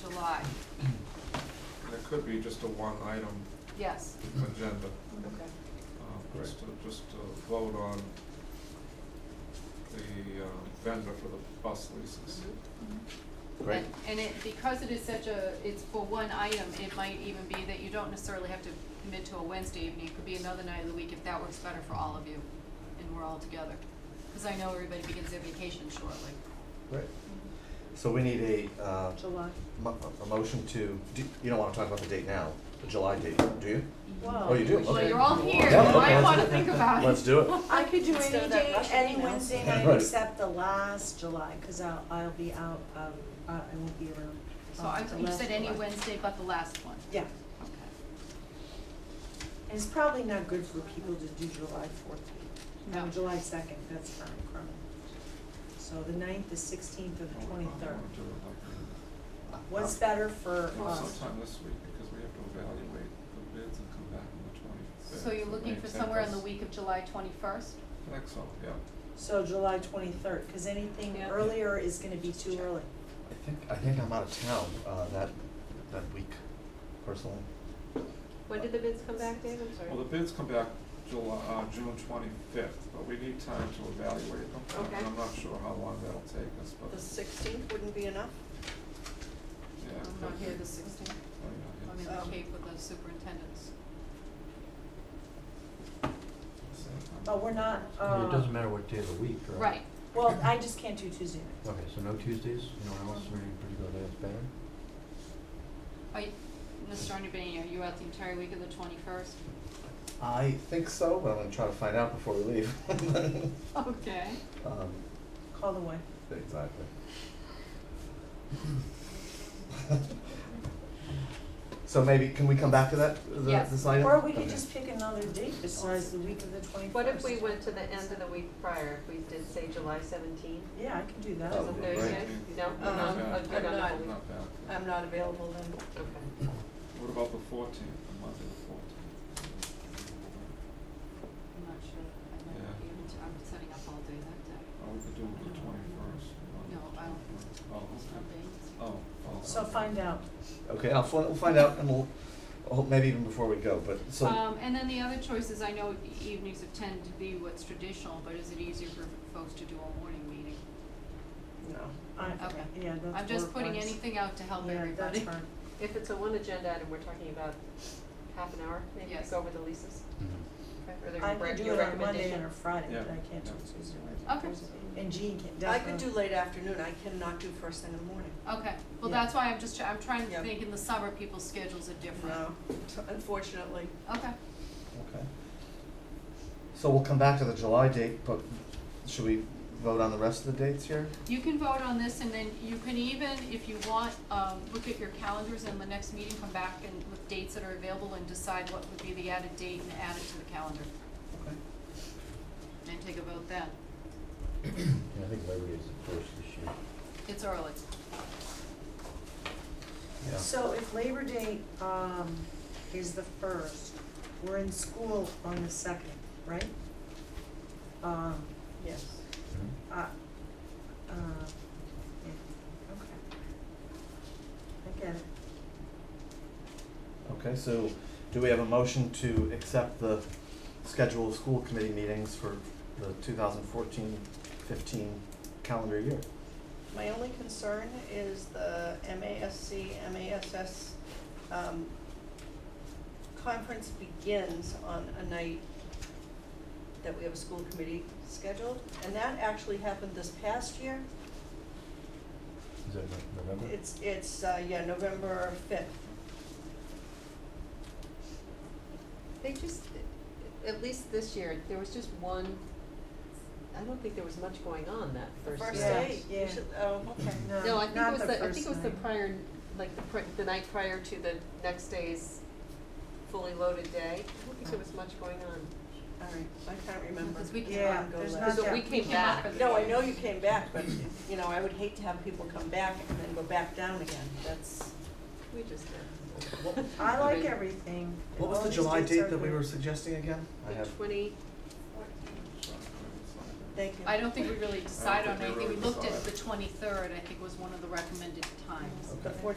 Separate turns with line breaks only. July,
It could be just a one item
yes,
agenda,
okay.
uh, just to, just to vote on the uh, vendor for the bus leases.
Mm-hmm.
Great.
And- And it, because it is such a, it's for one item, it might even be that you don't necessarily have to commit to a Wednesday evening, it could be another night of the week if that works better for all of you, and we're all together. Cause I know everybody begins their vacation shortly.
Right. So we need a, uh,
July.
mo- a motion to, do, you don't wanna talk about the date now, the July date, do you?
Wow.
Oh, you do?
Well,
Okay.
you're all here,
Yeah,
you might
let's-
wanna think about it.
Let's do it.
I could do
Instead
any
of that
day,
Russian
any
email.
Wednesday night
Right.
except the last July, cause I'll, I'll be out, um, uh, I won't be around.
So
um,
I,
the
you
last
said any
July.
Wednesday but the last one,
Yeah,
okay.
and it's probably not good for people to do July fourth,
No.
no, July second, that's fine, crummy. So the ninth, the sixteenth, or
I
the
would- I would
twenty-third,
do it like
what's
Uh,
better for um,
that. Well,
us?
sometime this week, because we have to evaluate the bids and come back on the twenty-fifth.
So you're looking for somewhere in the week of July twenty-first?
I think so, yeah.
So July twenty-third, cause anything
Yeah.
earlier is gonna be too early.
I think, I think I'm out of town, uh, that, that week, personally.
When did the bids come back, Dave? I'm
Well, the
sorry.
bids come back July, uh, June twenty-fifth, but we need time to evaluate them. and
Okay.
I'm not sure how long that'll take us, but,
The sixteenth wouldn't be enough?
yeah.
I'm not here the sixteenth, I'm in
Um,
the Cape with the superintendents.
But we're not,
Yeah,
uh,
It doesn't matter what day of the week, right?
Right,
well, I just can't do Tuesday night.
Okay, so no Tuesdays, no one else, or any particular day that's better?
Are you, Mr. Arnabini, are you out the entire week of the twenty-first?
I think so, but I'm gonna try to find out before we leave.
Okay.
Um,
Call the wife.
exactly. So maybe, can we come back to that, the,
Yes.
this item?
Or we could
Okay.
just pick another date besides the week of the twenty-first.
What if we went to the end of the week prior, if we did say July seventeenth,
Yeah, I can do that.
which is a
Oh,
Thursday?
right.
No,
Um,
no, a good
I'm
enough
not
week.
back.
I'm not available then. Okay.
What about the fourteenth, the Monday the fourteenth?
I'm not sure, I might not be able to, I'm setting up all day that day.
Or we could do it the twenty-first.
No, I don't think so.
Oh,
It's
okay.
not days.
Oh, oh.
So
okay.
find out.
Okay, I'll, fin- we'll find out and we'll, oh, maybe even before we go, but so.
Um, and then the other choices, I know e- evenings have tend to be what's traditional, but is it easier for folks to do a morning meeting?
No.
I,
Okay.
yeah, that's
I'm just
work
putting
wise.
anything out to help
Yeah, that's
everybody.
fine.
If it's a one agenda item, we're talking about half an hour, maybe to
Yes.
go over the leases? Or their
I
rec-
could do
your
it on Monday
recommendation?
and a Friday,
Yeah.
but I can't do
Yeah.
Tuesday or
Okay.
Thursday. And Jean can
I could do
definitely.
late afternoon, I cannot do first thing in the morning.
Okay, well,
Yeah.
that's why I'm just, try- I'm trying to
Yeah.
think in the summer, people's schedules are different.
No, unfortunately.
Okay,
Okay. So we'll come back to the July date, but should we vote on the rest of the dates here?
you can vote on this and then you can even, if you want, um, look at your calendars and the next meeting, come back and with dates that are available and decide what would be the added date and add it to the calendar
Okay.
and take a vote then.
Yeah, I think Labor Day is the first this year.
It's early.
Yeah.
So if Labor Day, um, is the first, we're in school on the second, right? Um,
Yes.
Hmm?
I, uh, yeah, okay. I get it.
Okay, so do we have a motion to accept the schedule of school committee meetings for the 2014-15 calendar year?
My only concern is the MASC, MASS, um, conference begins on a night that we have a school committee scheduled, and that actually happened this past year.
Is that no- November?
It's, it's, uh, yeah, November fifth.
They just, at least this year, there was just one, I don't think there was much going on that first year.
First
Yeah.
day, you
Yeah.
should, oh, okay.
No, I think it
not
was
the
the, I
first
think it was the
night.
prior, like the pri- the night prior to the next day's fully loaded day. I don't think there was much going on.
All right, I can't remember.
Because we can-
Yeah,
Go
there's
last.
not
So
that.
we came
came up
back.
with-
No, I know you came back, but, you know, I would hate to have people come back and then go back down again, that's.
We just did.
What-
I like everything.
What was
All
the
these
July
dates are
date that we
good.
were suggesting again? I
The
have,
twenty,
So, it's like-
Thank you.
I don't think we really decided on
think we
anything. We
really
looked at the
decided.
twenty-third, I think was one of the recommended times.
The
okay.
fourth